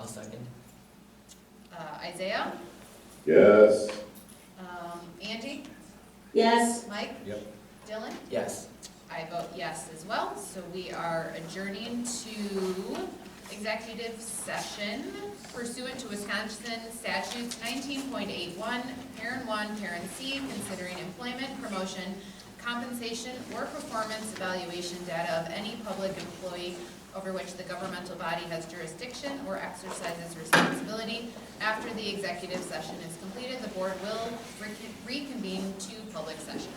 I'll second. Uh, Isaiah? Yes. Um, Angie? Yes, Mike? Yep. Dylan? Yes. I vote yes as well, so we are adjourning to executive session pursuant to Wisconsin statutes nineteen point eight one, parent one, parent C, considering employment, promotion, compensation, or performance evaluation data of any public employee over which the governmental body has jurisdiction or exercises responsibility. After the executive session is completed, the board will recon- reconvene to public session.